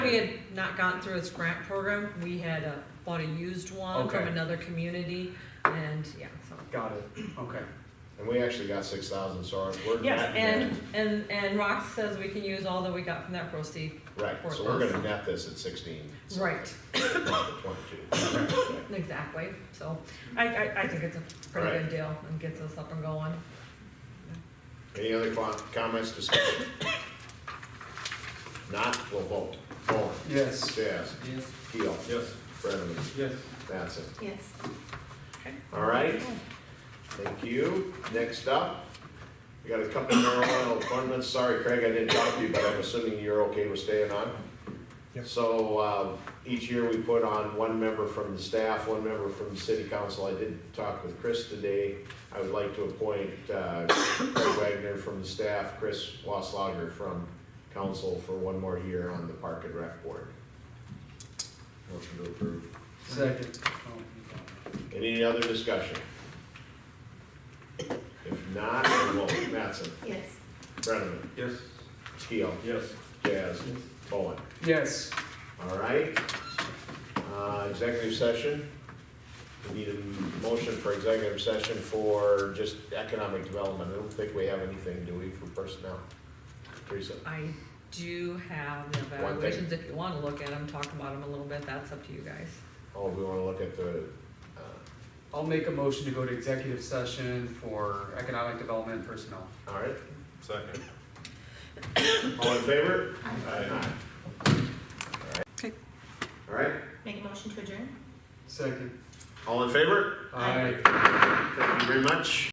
had not gotten through its grant program, we had uh, bought a used one from Okay. another community, and, yeah, so. Got it, okay. And we actually got six thousand, so our- we're. Yes, net- and, and, and Rox says we can use all that we got from that proceed. Right, for so we're gonna those. net this at sixteen. so Right, about the Twenty-two. Okay. exactly, so I, I, I think it's a pretty good Right. deal and gets us up and going. Any other co- comments, discussion? Not, we'll vote. Vaughn? Yes. Jazz? Yes. Keel? Yes. Brenneman? Yes. Mattson? Yes. All right, thank you. Next up, we got a couple of marijuana appointments. Sorry, Craig, I didn't talk to you, but I'm assuming you're okay with staying on? Yep. So, uh, each year we put on one member from the staff, one member from the city council. I did talk with Chris today. I would like to appoint, uh, Craig Wagner from the staff, Chris Wasslager from council for one more year on the Park and Rec Board. Motion to approve. Second. Any other discussion? If not, we'll vote. Mattson, Yes. Brenneman, Yes. Keel, Yes. Jazz, Bowen. Yes. All right. Uh, Executive session. We need a motion for executive session for just economic development. I don't think we have anything, do we, for personnel? Teresa? I do have the One thing. evaluations, if you wanna look at them, talk about them a little bit, that's up to you guys. Oh, we want to look at the, uh, I'll make a motion to go to executive session for economic development personnel. all right. Second. All in favor? Aye. Okay. All right, Make a motion to adjourn? Second. all in favor? Aye. Thank you very much.